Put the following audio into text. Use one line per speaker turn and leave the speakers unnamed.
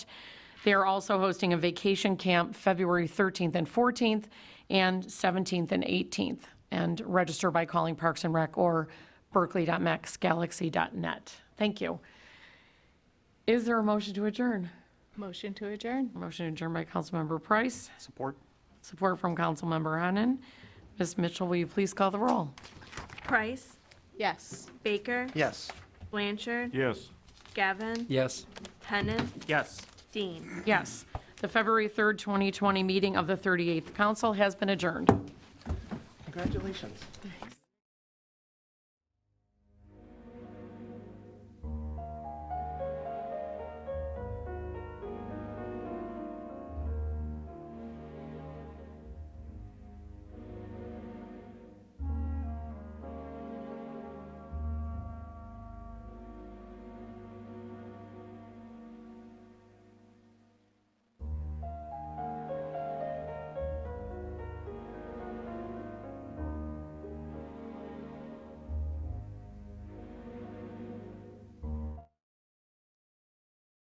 They are also hosting a vacation camp February 13th and 14th, and 17th and 18th. And register by calling Parks and Rec or berkeley.maxgalaxy.net. Thank you. Is there a motion to adjourn?
Motion to adjourn.
Motion adjourned by Councilmember Price,
Support?
support from Councilmember Henan. Ms. Mitchell, will you please call the roll?
Price,
Yes.
Baker,
Yes.
Blanchard,
Yes.
Gavin,
Yes.
Tennant,
Yes.
Dean.
Yes. The February 3rd, 2020 meeting of the 38th Council has been adjourned.
Congratulations.